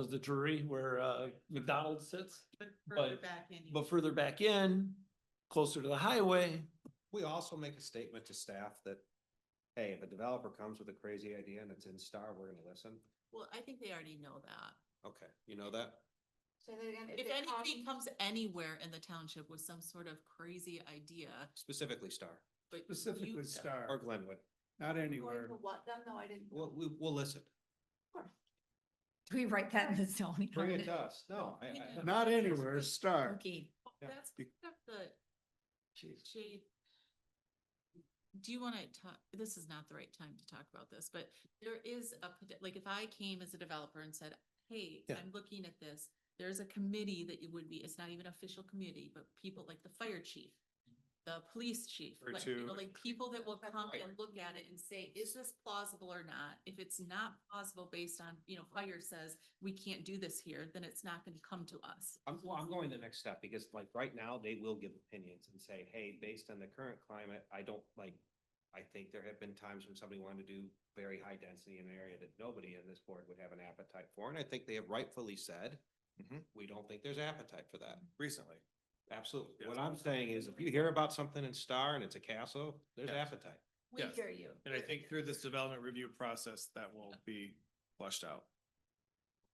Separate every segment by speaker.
Speaker 1: was the Drury where uh, McDonald's sits.
Speaker 2: Further
Speaker 1: But-
Speaker 2: back in.
Speaker 1: But further back in, closer to the highway,
Speaker 3: We also make a statement to staff that, hey, if a developer comes with a crazy idea and it's in Star, we're gonna listen.
Speaker 2: Well, I think they already know that.
Speaker 3: Okay, you know that?
Speaker 4: Say that again.
Speaker 2: If anybody comes anywhere in the township with some sort of crazy idea,
Speaker 3: Specifically Star
Speaker 2: but. you-
Speaker 5: Specifically
Speaker 3: or
Speaker 5: Star,
Speaker 3: Glenwood.
Speaker 5: not
Speaker 4: Going
Speaker 5: anywhere.
Speaker 4: to what then? No, I didn't.
Speaker 3: We'll, we, we'll listen.
Speaker 6: Do we write that in the zoning?
Speaker 3: Bring it to
Speaker 6: ordinance?
Speaker 3: us. No, I, I,
Speaker 5: Not anywhere, Star.
Speaker 6: Okay.
Speaker 3: Yeah.
Speaker 2: That's
Speaker 5: Be-
Speaker 2: kind of the
Speaker 3: jeez.
Speaker 2: shade. Do you want to talk, this is not the right time to talk about this, but there is a, pot- like, if I came as a developer and said, hey,
Speaker 1: Yeah.
Speaker 2: I'm looking at this. There's a committee that it would be, it's not even official committee, but people like the fire chief, the police chief.
Speaker 5: Or
Speaker 2: like, you know,
Speaker 5: two.
Speaker 2: Like, people that will come
Speaker 4: Right.
Speaker 2: and look at it and say, is this plausible or not? If it's not plausible based on, you know, fire says, we can't do this here, then it's not going to come to us.
Speaker 3: I'm, well, I'm going the next step because like right now, they will give opinions and say, hey, based on the current climate, I don't like. I think there have been times when somebody wanted to do very high density in an area that nobody in this board would have an appetite for. And I think they have rightfully said,
Speaker 5: Mhm.
Speaker 3: we don't think there's appetite for that.
Speaker 5: Recently.
Speaker 3: Absolutely. What I'm saying is if you hear about something in Star and it's a castle, there's
Speaker 5: Yes.
Speaker 3: appetite.
Speaker 4: We
Speaker 5: Yes.
Speaker 4: hear you.
Speaker 5: And I think through this development review process, that will be flushed out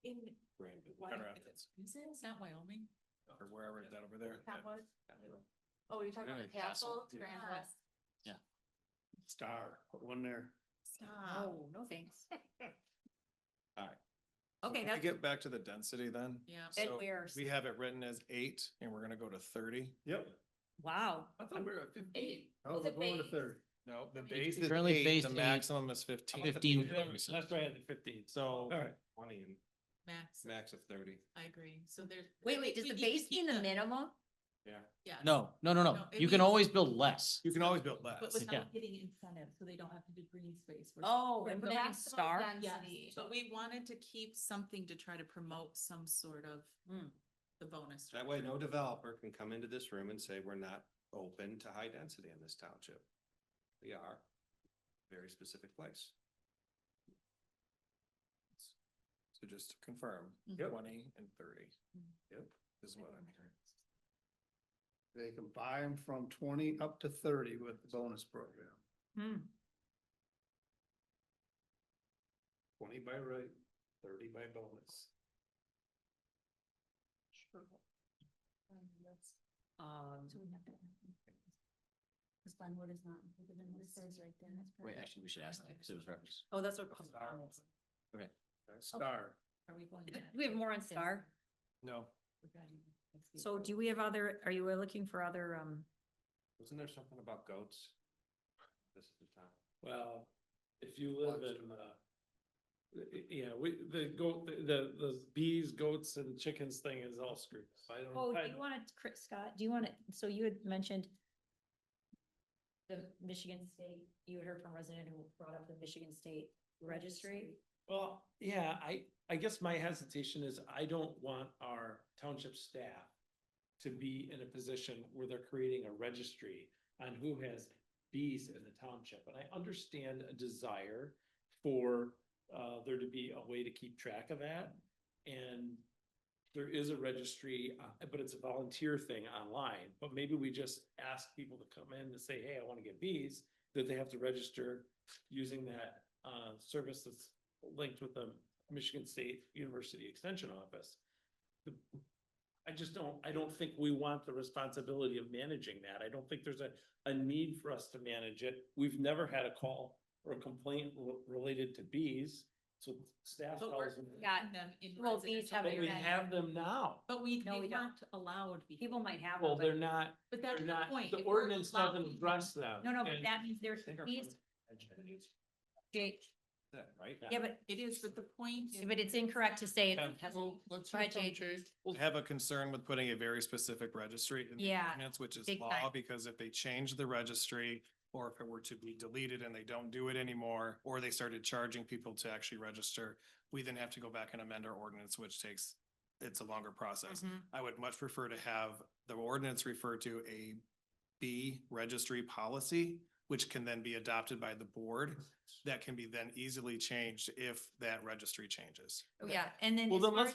Speaker 2: In
Speaker 5: Grand
Speaker 2: Wyoming,
Speaker 5: Rapids.
Speaker 2: is it, it's not Wyoming?
Speaker 5: or wherever that over there.
Speaker 4: That was. Oh, you're talking about the castle, Grand
Speaker 6: Uh,
Speaker 4: West.
Speaker 5: Star, put one there.
Speaker 2: Stop.
Speaker 6: Oh, no thanks.
Speaker 5: Alright.
Speaker 6: Okay,
Speaker 5: Can we
Speaker 6: that's,
Speaker 5: Get back to the density then.
Speaker 2: Yeah.
Speaker 6: and
Speaker 5: So
Speaker 6: we're,
Speaker 5: We have it written as eight and we're gonna go to thirty.
Speaker 1: Yep.
Speaker 6: wow,
Speaker 1: I thought we were at fifteen.
Speaker 4: Eight. Oh, we're going to third.
Speaker 5: No, the
Speaker 4: It's
Speaker 5: base is
Speaker 7: currently
Speaker 5: eight, the
Speaker 7: phased eight.
Speaker 5: maximum is fifteen.
Speaker 7: Fifteen.
Speaker 1: That's right, at the fifteen.
Speaker 5: So.
Speaker 1: All right.
Speaker 3: Twenty and
Speaker 2: Max,
Speaker 3: max of thirty.
Speaker 2: I agree. So there's.
Speaker 6: wait, wait, does the base mean the minimum?
Speaker 2: Yeah.
Speaker 7: No, no, no, no.
Speaker 2: No, it
Speaker 7: You can
Speaker 2: means-
Speaker 7: always build less.
Speaker 5: You can always build
Speaker 2: But
Speaker 5: less.
Speaker 7: Yeah.
Speaker 2: without getting incentive, so they don't have to do green space. We're-
Speaker 6: Oh,
Speaker 2: we're
Speaker 6: and
Speaker 2: building
Speaker 6: building
Speaker 2: s-
Speaker 6: star?
Speaker 2: Yes, but we wanted to keep something to try to promote some sort of
Speaker 6: Hmm.
Speaker 2: the bonus.
Speaker 3: That way, no developer can come into this room and say, we're not open to high density in this township. We are a very specific place.
Speaker 5: So just to confirm,
Speaker 2: Yep.
Speaker 5: twenty and thirty.
Speaker 2: Mm.
Speaker 5: Yep. Is what I'm hearing.
Speaker 8: They can buy them from twenty up to thirty with the bonus program.
Speaker 6: Hmm.
Speaker 8: Twenty by right, thirty by bonus.
Speaker 6: Um,
Speaker 4: Cause Glenwood is not included in what it says right there. That's
Speaker 7: Wait,
Speaker 4: perfect.
Speaker 7: actually, we should ask that because it was referenced.
Speaker 6: oh, that's what.
Speaker 8: Star,
Speaker 2: Are we going?
Speaker 6: Do we have more on star?
Speaker 5: No,
Speaker 6: So do we have other, are you looking for other, um,
Speaker 3: Wasn't there something about goats? This is the time.
Speaker 1: Well, if you live in, uh, y- yeah, we, the goat, the, the bees, goats and chickens thing is all screwed. up. I don't.
Speaker 6: oh, do
Speaker 1: I
Speaker 6: you want to, Chris, Scott, do you want to, so you had mentioned the Michigan State, you had heard from a resident who brought up the Michigan State Registry.
Speaker 1: Well, yeah, I, I guess my hesitation is I don't want our township staff to be in a position where they're creating a registry on who has bees in the township. And I understand a desire for, uh, there to be a way to keep track of that. And there is a registry, uh, but it's a volunteer thing online. But maybe we just ask people to come in and say, hey, I want to get bees, that they have to register using that, uh, service that's linked with the Michigan State University Extension Office. The- I just don't, I don't think we want the responsibility of managing that. I don't think there's a, a need for us to manage it. We've never had a call or a complaint re- related to bees, so staff
Speaker 2: But we're-
Speaker 1: tells me.
Speaker 6: Got,
Speaker 2: Them in.
Speaker 6: Well, these
Speaker 2: residential
Speaker 6: have
Speaker 1: But we
Speaker 6: your-
Speaker 2: areas.
Speaker 1: have them now.
Speaker 2: But we,
Speaker 6: No, we
Speaker 2: they
Speaker 6: don't.
Speaker 2: weren't allowed. before.
Speaker 6: people might have.
Speaker 1: Well,
Speaker 6: them, but-
Speaker 1: they're not,
Speaker 2: But that's
Speaker 1: they're
Speaker 2: the
Speaker 1: not,
Speaker 2: point.
Speaker 1: the
Speaker 2: if we're
Speaker 1: ordinance doesn't
Speaker 2: allowing-
Speaker 1: address them.
Speaker 6: No, no, but
Speaker 1: And-
Speaker 6: that means there's
Speaker 1: They're from
Speaker 6: bees,
Speaker 1: Edge.
Speaker 6: Jake,
Speaker 3: That, right?
Speaker 6: yeah, but,
Speaker 2: It is, but the point. is-
Speaker 6: but it's incorrect to say. it has-
Speaker 7: let's
Speaker 6: hear Right, from Jay. Jake.
Speaker 5: have a concern with putting a very specific registry in the
Speaker 6: Yeah,
Speaker 5: ordinance, which is
Speaker 6: big
Speaker 5: law,
Speaker 6: time.
Speaker 5: because if they change the registry or if it were to be deleted and they don't do it anymore, or they started charging people to actually register, we then have to go back and amend our ordinance, which takes, it's a longer process.
Speaker 6: Mm-hmm.
Speaker 2: Mhm.
Speaker 5: I would much prefer to have the ordinance refer to a B registry policy, which can then be adopted by the board. That can be then easily changed if that registry changes.
Speaker 6: Yeah, and then.
Speaker 1: Well,
Speaker 6: as
Speaker 1: then
Speaker 6: far
Speaker 1: let's
Speaker 6: as-